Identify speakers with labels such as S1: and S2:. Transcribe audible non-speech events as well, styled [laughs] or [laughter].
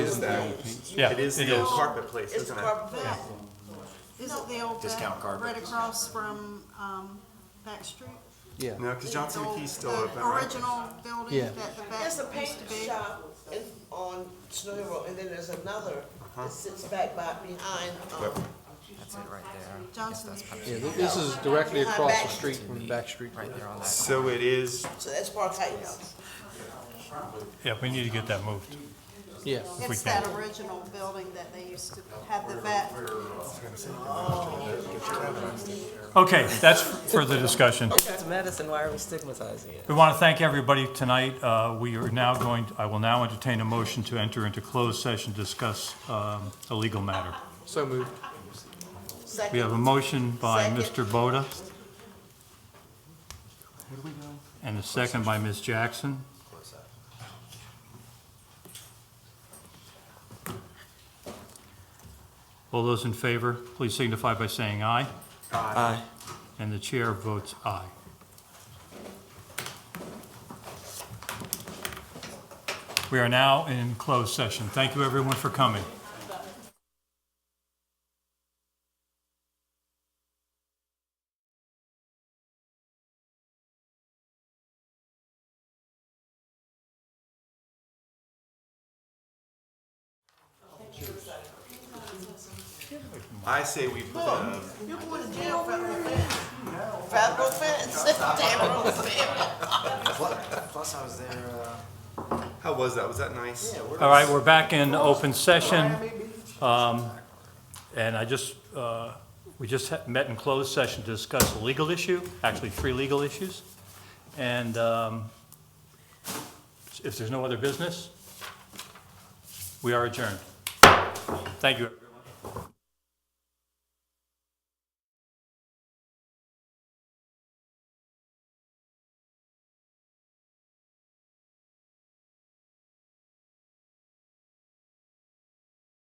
S1: is that?
S2: Yeah,
S1: It is
S2: it
S1: the old
S2: is.
S1: carpet place,
S3: It's the
S1: isn't it?
S3: carpet plant.
S4: Is it the old
S5: Discount
S4: back,
S5: carpet.
S4: right across from, um, Back Street?
S6: Yeah,
S1: No, because Johnson
S4: The old-
S1: McKee's still
S4: the
S1: open, right?
S4: Original building
S6: Yeah.
S4: that the back
S3: There's a
S4: used
S3: paint
S4: to be.
S3: shop in, on Snow Hill Road, and then there's another that sits back by behind, um,
S5: That's it right there.
S4: Johnson.
S5: Yes, that's
S6: yeah, th- this is directly across the street from Back Street.
S5: Right there on that.
S1: So it is,
S3: so that's Park Heights.
S2: Yeah, we need to get that moved.
S6: Yeah,
S2: we
S4: It's that original building that they used to have the back.
S2: Okay, that's further discussion.
S7: It's medicine, why are we stigmatizing it?
S2: We want to thank everybody tonight. Uh, We are now going, I will now entertain a motion to enter into closed session, to discuss um, a legal matter.
S6: so moved.
S2: We have a
S3: Second,
S2: motion by Mr.
S3: Second.
S2: Boda. And a second by Ms. Jackson. All those in favor, please signify by saying aye.
S7: Aye.
S2: And the chair votes aye. We are now in closed session. Thank you, everyone, for coming.
S1: I say we put um, a
S3: you're going to jail, federal offense. Federal [laughs] offense, federal offense.
S5: Plus, I was there. Uh,
S1: How was that? Was that nice?
S2: All right, we're back in open session. Um, And I just, uh, we just ha- met in closed session to discuss a legal issue, actually three legal issues. And um, if there's no other business, we are adjourned. Thank you. everyone.